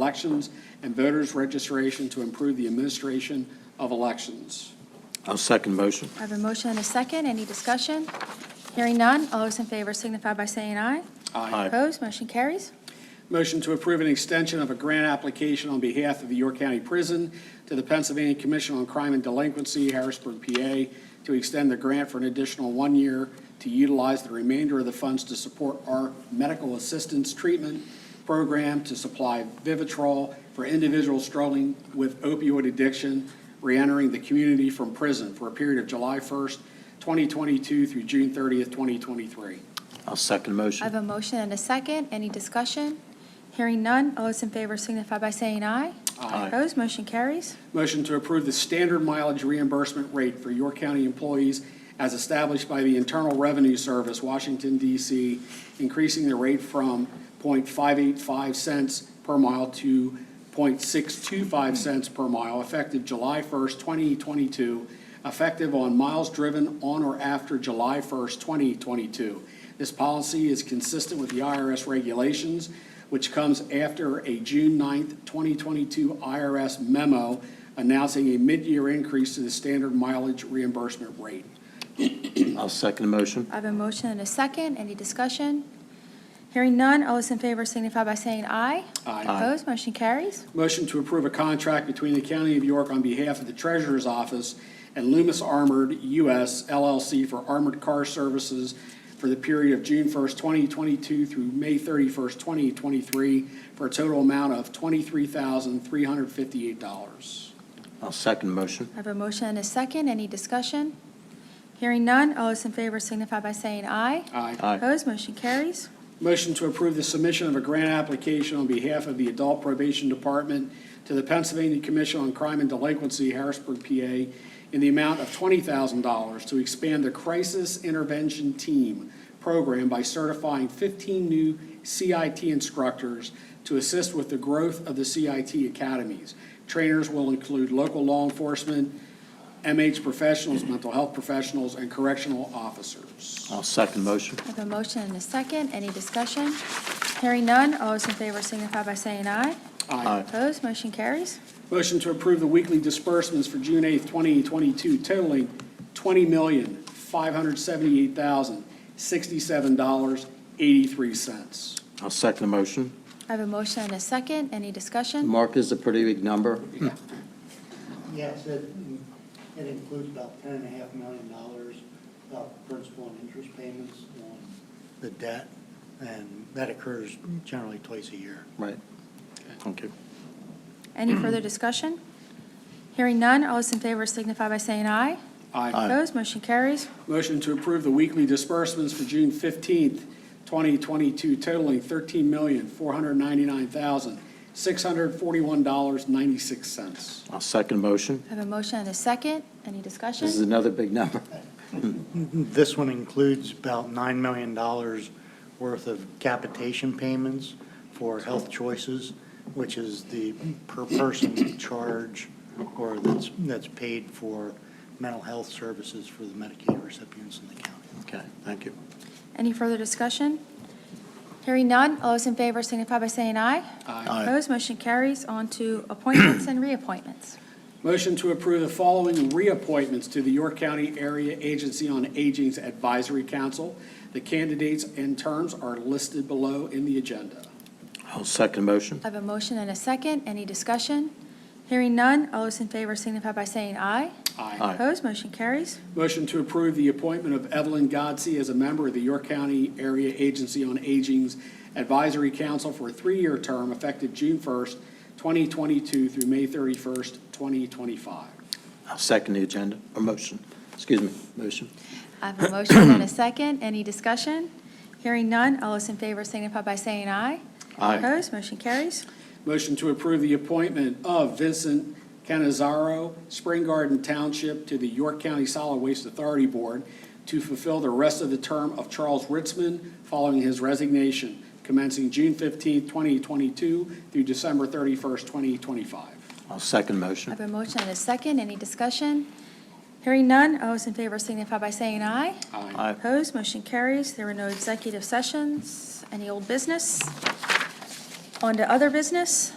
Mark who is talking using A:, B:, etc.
A: Elections and Voters Registration to improve the administration of elections.
B: I'll second motion.
C: I have a motion and a second. Any discussion? Hearing none. All those in favor signify by saying aye.
B: Aye.
C: Opposed, motion carries.
A: Motion to approve an extension of a grant application on behalf of the York County Prison to the Pennsylvania Commission on Crime and Delinquency, Harrisburg, PA, to extend the grant for an additional one year to utilize the remainder of the funds to support our medical assistance treatment program to supply Vivitrol for individuals struggling with opioid addiction reentering the community from prison for a period of July 1st, 2022 through June 30th, 2023.
B: I'll second
C: I have
B: motion.
C: a motion and a second. Any discussion? Hearing none. All those in favor signify by saying aye.
B: Aye.
C: Opposed, motion carries.
A: Motion to approve the standard mileage reimbursement rate for York County employees as established by the Internal Revenue Service, Washington DC, increasing the rate from .585 cents per mile to .625 cents per mile effective July 1st, 2022, effective on miles driven on or after July 1st, 2022. This policy is consistent with the IRS regulations, which comes after a June 9th, 2022 IRS memo announcing a mid-year increase to the standard mileage reimbursement rate.
B: I'll second motion.
C: I have a motion and a second. Any discussion? Hearing none. All those in favor signify by saying aye.
A: Aye.
C: Opposed, motion carries.
A: Motion to approve a contract between the County of York on behalf of the Treasurer's Office and Loomis Armored US LLC for armored car services for the period of June 1st, 2022 through May 31st, 2023, for a total amount of $23,358.
B: I'll second motion.
C: I have a motion and a second. Any discussion? Hearing none. All those in favor signify by saying aye.
A: Aye.
B: Aye.
C: Opposed, motion carries.
A: Motion to approve the submission of a grant application on behalf of the Adult Probation Department to the Pennsylvania Commission on Crime and Delinquency, Harrisburg, PA, in the amount of $20,000 to expand the Crisis Intervention Team program by certifying 15 new CIT instructors to assist with the growth of the CIT academies. Trainers will include local law enforcement, MH professionals, mental health professionals, and correctional officers.
B: I'll second motion.
C: I have a motion and a second. Any discussion? Hearing none. All those in favor signify by saying aye.
B: Aye.
C: Opposed, motion carries.
A: Motion to approve the weekly disbursements for June 8th, 2022 totaling $20,578,067.83.
B: I'll second motion.
C: I have a motion and a second. Any discussion?
B: Mark is a pretty big number.
D: Yes, it, it includes about ten and a half million dollars of principal and interest payments on the debt, and that occurs generally twice a year.
B: Right. Thank you.
C: Any
B: Mm-hmm.
C: further discussion? Hearing none. All those in favor signify by saying aye.
B: Aye.
C: Opposed, motion carries.
A: Motion to approve the weekly disbursements for June 15th, 2022 totaling $13,499,641.96.
B: I'll second motion.
C: I have a motion and a second. Any
B: This is
C: discussion?
B: another big number.
D: This one includes about nine million dollars worth of capitation payments for health choices, which is the per person charge or that's, that's paid for mental health services for the Medicaid recipients in the county.
B: Okay, thank you.
C: Any further discussion? Hearing none. All those in favor signify by saying aye.
B: Aye.
C: Opposed, motion carries. On to appointments and reappointments.
A: Motion to approve the following reappointments to the York County Area Agency on Aging's Advisory Council. The candidates and terms are listed below in the agenda.
B: I'll second motion.
C: I have a motion and a second. Any discussion? Hearing none. All those in favor signify by saying aye.
B: Aye.
C: Opposed, motion carries.
A: Motion to approve the appointment of Evelyn Godsey as a member of the York County Area Agency on Aging's Advisory Council for a three-year term effective June 1st, 2022 through May 31st, 2025.
B: I'll second the agenda, or motion, excuse me, motion.
C: I have a motion and a second. Any discussion? Hearing none. All those in favor signify by saying aye.
B: Aye.
C: Opposed, motion carries.
A: Motion to approve the appointment of Vincent Canizaro, Spring Garden Township, to the York County Solid Waste Authority Board to fulfill the rest of the term of Charles Ritzman following his resignation, commencing June 15, 2022 through December 31, 2025.
B: I'll second
C: I have
B: motion.
C: a motion and a second. Any discussion? Hearing none. All those in favor signify by saying aye.
B: Aye.
C: Opposed, motion carries. There were no executive sessions. Any old business? On to other business.